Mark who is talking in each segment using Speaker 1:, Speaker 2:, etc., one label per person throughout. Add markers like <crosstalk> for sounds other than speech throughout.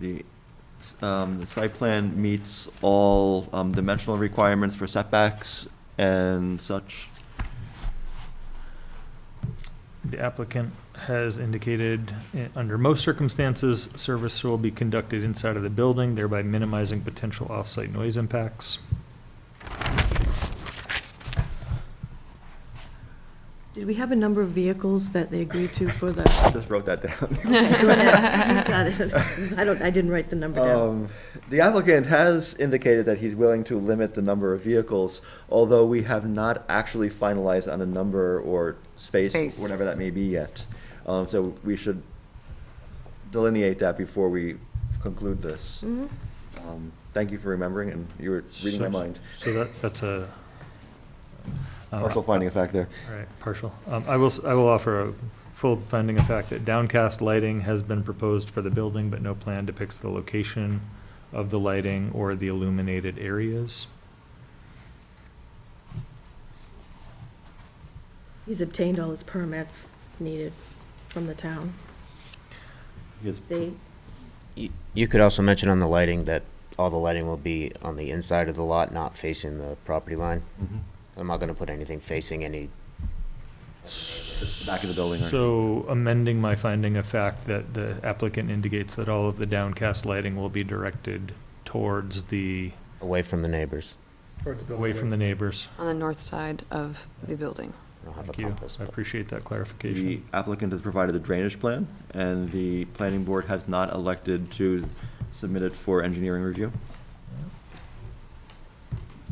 Speaker 1: The, um, the site plan meets all, um, dimensional requirements for setbacks and such.
Speaker 2: The applicant has indicated, eh, under most circumstances, service will be conducted inside of the building, thereby minimizing potential off-site noise impacts.
Speaker 3: Did we have a number of vehicles that they agreed to for the?
Speaker 1: Just wrote that down.
Speaker 3: <laughs> Got it. I don't, I didn't write the number down.
Speaker 1: Um, The applicant has indicated that he's willing to limit the number of vehicles, although we have not actually finalized on a number or space,
Speaker 4: Space.
Speaker 1: whatever that may be yet. Um, So we should delineate that before we conclude this. Um, Thank you for remembering, and you were reading my
Speaker 2: So-
Speaker 1: mind.
Speaker 2: So that, that's a. um,
Speaker 1: Partial finding of fact there.
Speaker 2: All right, partial. Um, I will, s- I will offer a full finding of fact that downcast lighting has been proposed for the building, but no plan depicts the location of the lighting or the illuminated areas.
Speaker 3: He's obtained all his permits needed from the town,
Speaker 1: Yes.
Speaker 3: state.
Speaker 5: You you could also mention on the lighting that all the lighting will be on the inside of the lot, not facing the property line. I'm not gonna put anything facing any,
Speaker 1: Back of the building. right?
Speaker 2: So amending my finding of fact that the applicant indicates that all of the downcast lighting will be directed towards the,
Speaker 5: away from the neighbors.
Speaker 2: away from the neighbors.
Speaker 4: on the north side of the building.
Speaker 5: I don't have a
Speaker 2: Thank you.
Speaker 5: compass.
Speaker 2: I
Speaker 5: but-
Speaker 2: appreciate that
Speaker 1: The
Speaker 2: clarification.
Speaker 1: applicant has provided a drainage plan, and the planning board has not elected to submit it for engineering review.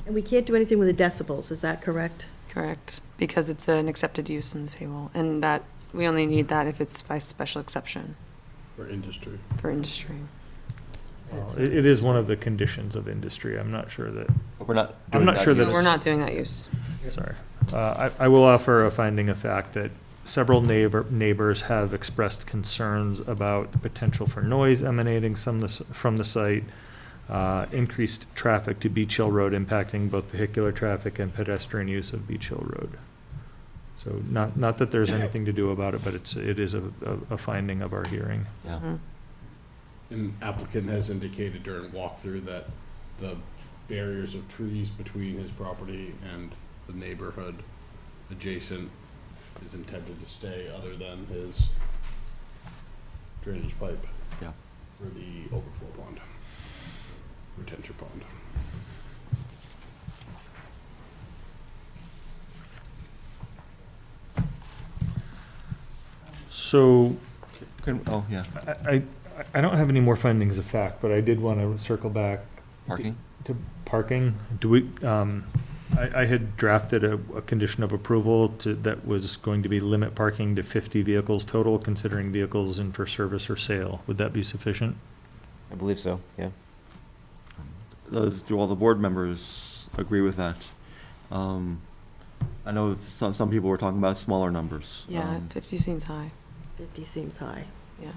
Speaker 3: And we can't do anything with the decibels, is that correct?
Speaker 4: Correct, because it's an accepted use in the table, and that, we only need that if it's by special exception
Speaker 6: For industry.
Speaker 4: for industry.
Speaker 2: Well, It, it is one of the conditions of industry. I'm not sure that,
Speaker 1: But We're not.
Speaker 2: I'm
Speaker 1: doing
Speaker 2: not sure that
Speaker 4: But
Speaker 1: yet.
Speaker 4: We're not doing that use.
Speaker 2: sorry. Uh, I, I will offer a finding of fact that several neighbor, neighbors have expressed concerns about the potential for noise emanating some, the s- from the site, uh, increased traffic to Beach Hill Road impacting both vehicular traffic and pedestrian use of Beach Hill Road. So not, not that there's anything to do about it, but it's, it is a, a- a finding of our hearing.
Speaker 6: An applicant has indicated during walkthrough that the barriers of trees between his property and the neighborhood adjacent is intended to stay other than his drainage pipe
Speaker 1: Yeah.
Speaker 6: for the overflow pond, retention pond.
Speaker 2: So
Speaker 1: Can- oh, yeah,
Speaker 2: I, I, I don't have any more findings of fact, but I did want to circle back
Speaker 1: parking.
Speaker 2: to parking. Do we, um, I, I had drafted a, a condition of approval to, that was going to be limit parking to fifty vehicles total, considering vehicles in for service or sale. Would that be sufficient?
Speaker 5: I believe so, yeah.
Speaker 1: Those, do all the board members agree with that? Um, I know some, some people were talking about smaller numbers.
Speaker 4: Yeah,
Speaker 1: Um,
Speaker 4: 50 seems high,
Speaker 3: 50 seems high.
Speaker 4: yeah.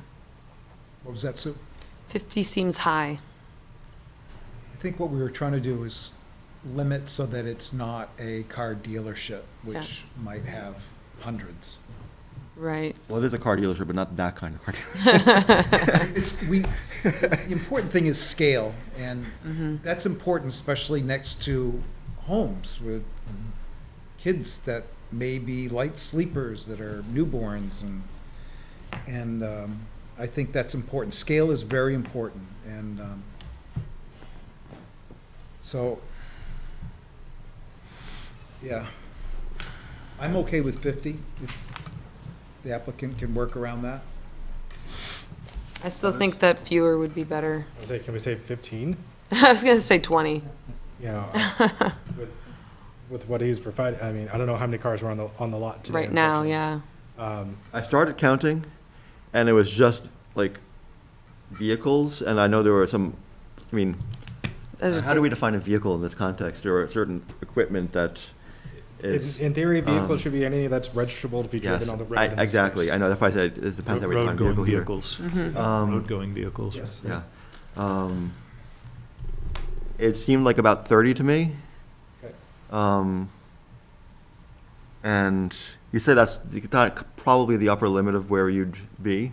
Speaker 7: What was that, Sue?
Speaker 4: 50 seems high,
Speaker 7: I think what we were trying to do is limit so that it's not a car dealership, which might have hundreds. <laughs>
Speaker 4: <laughs> right?
Speaker 1: Well, it is a car dealership, but not that kind of car dealership.
Speaker 4: Mm-hmm.
Speaker 7: It's, we, the important thing is scale, and that's important, especially next to homes with kids that may be light sleepers that are newborns and, and um, I think that's important. Scale is very important, and um, so, yeah. I'm okay with 50, if the applicant can work around that.
Speaker 4: I still think that fewer would be better. <laughs>
Speaker 8: I was like, can we say 15?
Speaker 4: I was gonna say 20.
Speaker 8: You
Speaker 4: <laughs>
Speaker 8: know, I- with, with what he's providing, I mean, I don't know how many cars were on the, on the lot today.
Speaker 4: Right now,
Speaker 8: unfortunately.
Speaker 4: yeah.
Speaker 8: Um,
Speaker 1: I started counting, and it was just like vehicles, and I know there were some, I mean,
Speaker 4: Those are
Speaker 1: how do we define a vehicle in this context? There are certain equipment that
Speaker 8: in,
Speaker 1: is.
Speaker 8: in theory, a vehicle
Speaker 1: um,
Speaker 8: should be anything that's registrable to be
Speaker 1: Yes,
Speaker 8: driven on the road.
Speaker 1: I-
Speaker 8: in the
Speaker 1: exactly.
Speaker 8: space.
Speaker 1: I know, that's why I said it depends how we define vehicle
Speaker 2: Road-going
Speaker 1: here.
Speaker 2: vehicles,
Speaker 4: Mm-hmm.
Speaker 1: Um,
Speaker 2: road-going vehicles.
Speaker 8: Yes.
Speaker 1: Yeah. Um, it seemed like about 30 to me.
Speaker 8: Okay.
Speaker 1: Um, and you say that's the- that probably the upper limit of where you'd be.